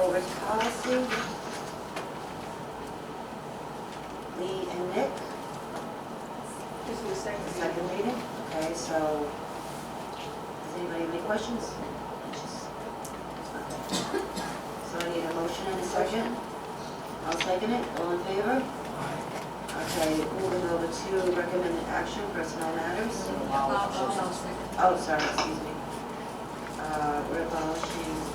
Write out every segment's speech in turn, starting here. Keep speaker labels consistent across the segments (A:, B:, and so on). A: over to policy. Lee and Nick,
B: This is the second reading.
A: the second reading. Okay, so, does anybody have any questions? So I need a motion and a second. I'll second it. All in favor? Okay, moving over to recommended action, personnel matters. Oh, sorry, excuse me. Uh, We're abolishing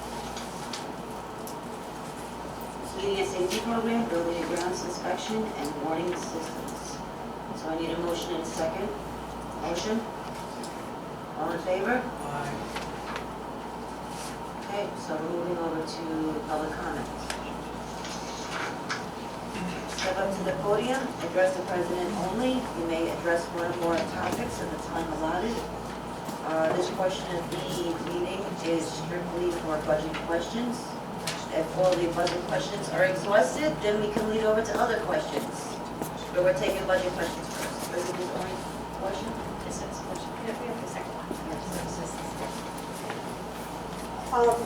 A: media safety program, building and grounds inspection, and warning systems. So I need a motion and a second. Motion? All in favor? Okay, so we're moving over to public comments. Step up to the podium, address the president only. You may address one or more topics at the time allotted. Uh, This portion of the meeting is strictly for budget questions. If all the budget questions are exhausted, then we can lead over to other questions. But we're taking budget questions first. Is it the only question?
C: This is what you- we have the second one. This is the second.
D: Um,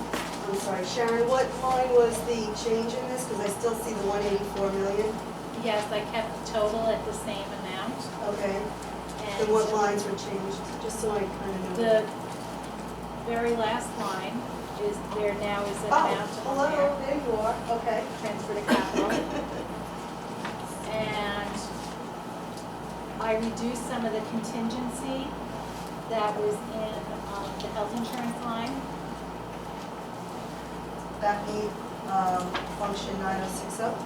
D: I'm sorry, Sharon, what line was the change in this? Because I still see the 184 million.
C: Yes, I kept the total at the same amount,
D: Okay, and what
C: and
D: lines were changed, just so I kind of know.
C: the very last line is, there now is an
D: Oh,
C: amount on
D: hello,
C: there,
D: there you are, okay.
C: transfer to capital. And I reduced some of the contingency that was in um, the health insurance line.
D: That need, um, function 9060, oh?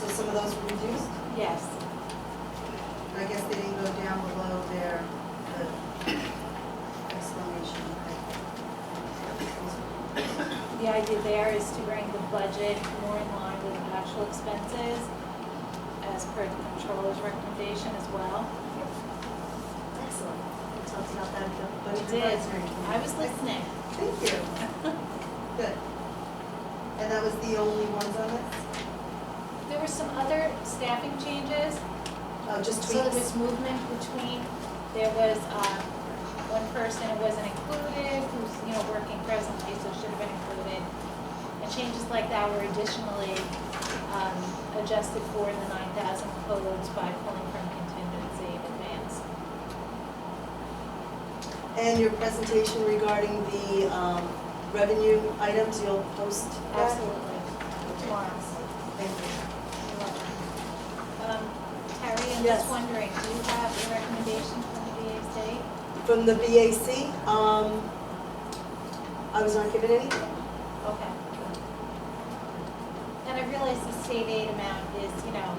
D: so some of those were reduced.
C: Yes,
D: And I guess they didn't go down below their, the exclamation. okay.
C: the idea there is to bring the budget more in line with actual expenses as per the controller's recommendation as well.
D: Excellent. We talked about that, at the budget
C: We did.
D: advisory committee.
C: I was listening.
D: Thank you. Good. And that was the only ones on this?
C: There were some other staffing changes.
D: Oh, just
C: So there
D: tweaks?
C: was movement between, there was, um, one person who wasn't included, who's, you know, working presently, so should have been included. And changes like that were additionally, um, adjusted for in the nine thousand codes by pulling from contingency in advance.
D: And your presentation regarding the um, revenue items, you'll post that?
C: Absolutely. Tomorrow.
D: Thank you.
C: Um, Terry, I'm
D: Yes.
C: just wondering, do you have a recommendation from the VA
D: From the BAC, um, I was not given any.
C: Okay. And I realize the state aid amount is, you know,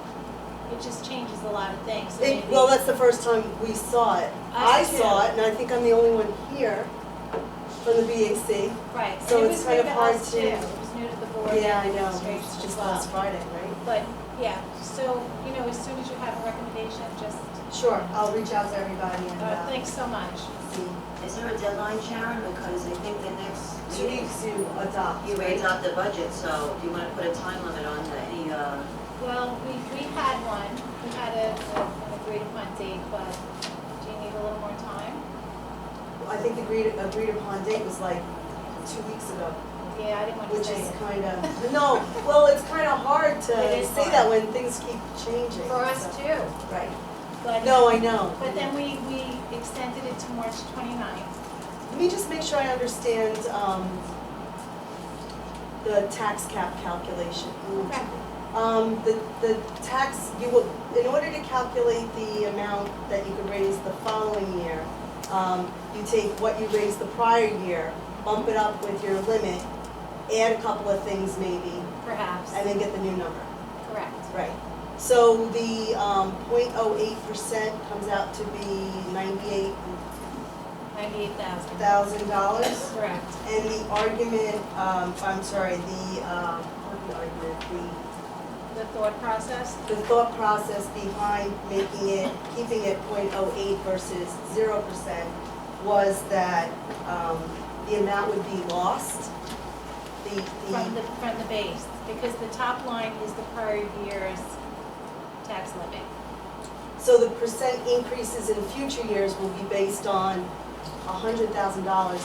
C: it just changes a lot of things, so
D: It-
C: maybe.
D: Well, that's the first time we saw it.
C: I
D: I
C: too.
D: saw it, and I think I'm the only one here from the BAC.
C: Right,
D: so
C: and it
D: it's
C: was
D: kind
C: new
D: of
C: to
D: hard
C: us too,
D: to-
C: it was new to the board
D: Yeah, I
C: and
D: know,
C: administration
D: it's
C: as
D: just last
C: well.
D: Friday, right?
C: But, yeah, so, you know, as soon as you have a recommendation, just,
D: Sure, I'll reach out to everybody and
C: uh,
D: uh,
C: thanks so much.
D: see.
A: Is there a deadline, Sharon? Because I think the next
D: Two
A: meeting,
D: weeks to adopt.
A: you
D: right?
A: raise up the budget, so do you want to put a time limit on the- any, uh,
C: Well, we, we had one, we had a, a- an agreed upon date, but do you need a little more time?
D: I think the agreed, agreed upon date was like two weeks ago,
C: Yeah, I didn't want to
D: which
C: say
D: is
C: it.
D: kind of, no, well, it's kind of hard to
C: It is
D: say
C: hard.
D: that when things keep changing.
C: For us
D: so-
C: too,
D: Right.
C: but.
D: No, I know.
C: But then we, we extended it to March 29th.
D: Let me just make sure I understand, um, the tax cap calculation. Um, the, the tax, you will, in order to calculate the amount that you can raise the following year, um, you take what you raised the prior year, bump it up with your limit, add a couple of things maybe,
C: Perhaps,
D: and then get the new number.
C: correct.
D: Right. So the, um, point oh eight percent comes out to be ninety-eight
C: 98,000,
D: thousand dollars.
C: correct.
D: And the argument, um, I'm sorry, the, um, not the argument,
C: The thought process,
D: the, the thought process behind making it, keeping it 0.08 versus zero percent was that, um, the amount would be lost. The,
C: from the,
D: the,
C: from the base, because the top line is the prior year's tax limit.
D: so the percent increases in future years will be based on hundred thousand dollars